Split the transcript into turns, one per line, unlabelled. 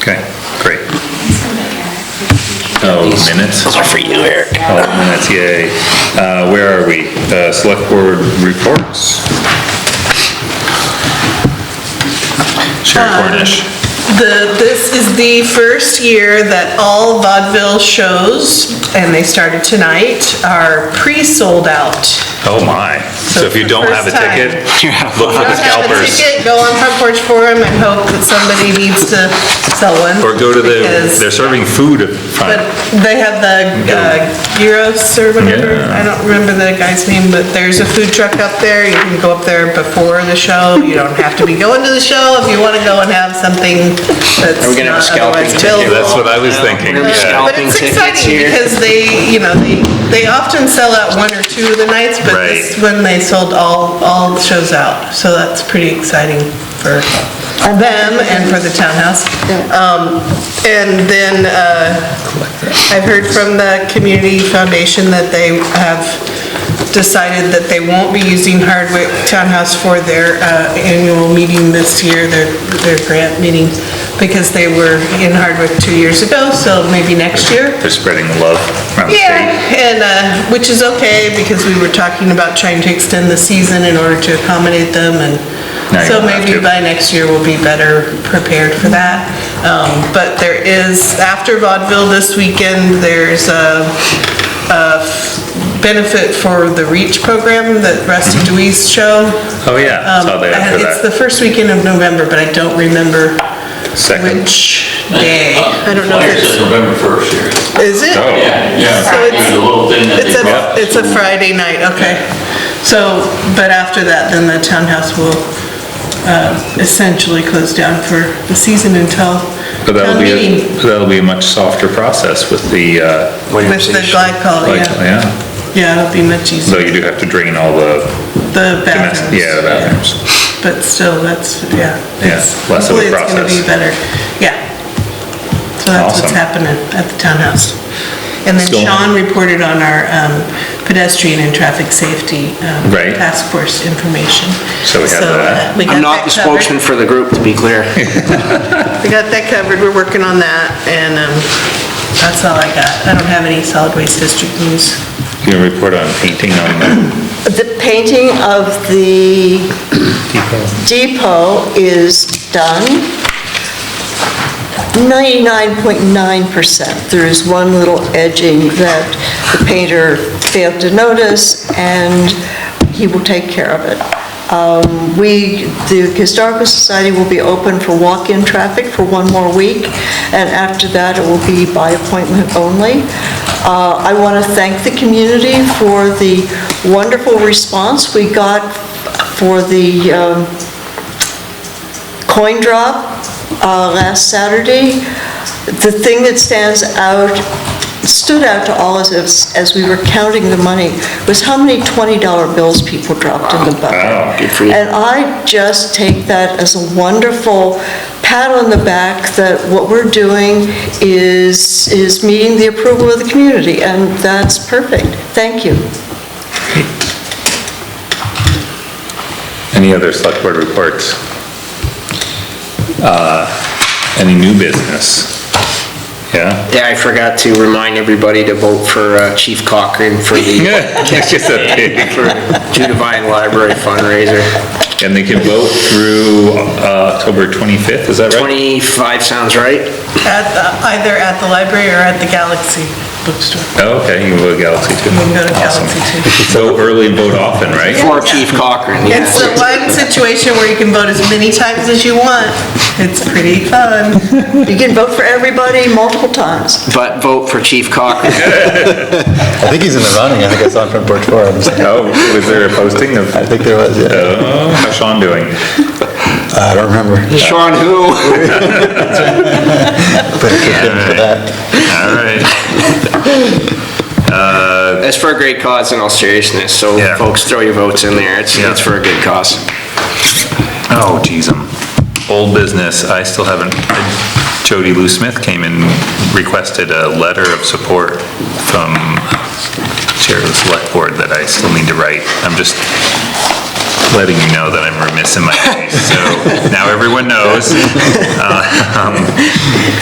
Okay, great. Oh,
These-
minutes?
Those are for you, Eric.
Oh, minutes, yay. Uh, Where are we? Uh, Select Board reports. Sherry
Um,
Cornish.
The, this is the first year that all vaudeville shows, and they started tonight, are pre-sold out.
Oh, my. So if you don't have a
First time.
ticket, look for the
Don't have a
scalpers.
ticket, go on Front Porch Forum and hope that somebody needs to sell one.
Or go to the,
because-
they're serving food at
But
front.
they have the uh, gyros or whatever,
Yeah.
I don't remember the guy's name, but there's a food truck up there, you can go up there before the show, you don't have to be going to the show if you wanna go and have something that's
Are we gonna have a
not
scalping
otherwise
ticket?
available.
That's what I was thinking,
We're gonna
yeah.
scalp
But it's
Scalping tickets
exciting
here.
because they, you know, they, they often sell out one or two of the nights, but this
Right.
one they sold all, all shows out. So that's pretty exciting for them and for the townhouse. Um, And then uh, I've heard from the community foundation that they have decided that they won't be using Hardwick Townhouse for their uh, annual meeting this year, their, their grant meeting, because they were in Hardwick two years ago, so maybe next year.
They're spreading the love around the
Yeah,
state.
and, uh, which is okay, because we were talking about trying to extend the season in order to accommodate them, and
Now you
so
don't have
maybe
to.
by next year we'll be better prepared for that. Um, But there is, after vaudeville this weekend, there's a a benefit for the REACH program, that Rusty Dewey's show.
Oh, yeah,
Um,
saw they had for
It's the
that.
first weekend of November, but I don't remember
Second.
which day. I don't know.
Flyers
if
says November 1st here.
it's- Is it?
Oh.
Yeah, yeah.
So it's-
There's a little thing that
It's
they
a,
brought.
it's a Friday night, okay. So, but after that, then the townhouse will uh, essentially close down for the season until
But that'll
town
be, a-
meeting
that'll be a much softer process with the, uh,
with the glycol,
like,
Oh, yeah.
yeah.
Yeah, it'll be much
Though
easier,
you do have to drain all the
the
Domestic,
bathrooms.
yeah, the bathrooms.
But still, that's, yeah.
Yeah,
it's-
less of a
Hopefully, it's gonna be
process.
better, yeah. So that's what's
Awesome.
happening at the townhouse. And then
Still-
Sean reported on our um, pedestrian and traffic safety um,
Right.
task force information.
So we have that.
uh, we got
I'm not
that
the
covered.
spokesman for the group, to be clear.
We got that covered, we're working on that, and um, that's all I got. I don't have any solid waste district news.
You know, report on painting on the
The painting of the depot is done. 99.9%. There is one little edging that the painter failed to notice, and he will take care of it. Um, We, the Historical Society will be open for walk-in traffic for one more week, and after that, it will be by appointment only. Uh, I want to thank the community for the wonderful response we got for the um, coin drop uh, last Saturday. The thing that stands out, stood out to all of us as we were counting the money, was how many $20 bills people dropped in the bucket.
Good for you.
And I just take that as a wonderful pat on the back that what we're doing is, is meeting the approval of the community, and that's perfect. Thank you.
Any other select board reports? Uh, Any new business? Yeah?
Yeah, I forgot to remind everybody to vote for uh, Chief Cochran for the
It's just a pig.
for Judavine Library fundraiser.
And they can vote through uh, October 25th, is that right?
25 sounds right?
At, the- either at the library or at the Galaxy bookstore.
Oh, okay, you can vote Galaxy too.
We can go to
Awesome.
Galaxy too.
Vote early, vote often, right?
For Chief Cochran, yeah.
It's the one situation where you can vote as many times as you want. It's pretty fun.
You can vote for everybody multiple times.
But vote for Chief Cochran.
I think he's in the running, I think I saw him from Porch Forum.
Oh, was there a posting of,
I think there was, yeah.
oh, how's Sean doing?
I don't remember,
Sean who?
but it could have been for that.
All right,
That's for a great cause in all seriousness, so
Yeah.
folks, throw your votes in there. It's,
Yeah.
it's for a good cause.
oh, geez, um, old business, I still haven't, Jody Lou Smith came and requested a letter of support from Chair of the Select Board that I still need to write. I'm just letting you know that I'm remiss in my case, so now everyone knows. Uh, um,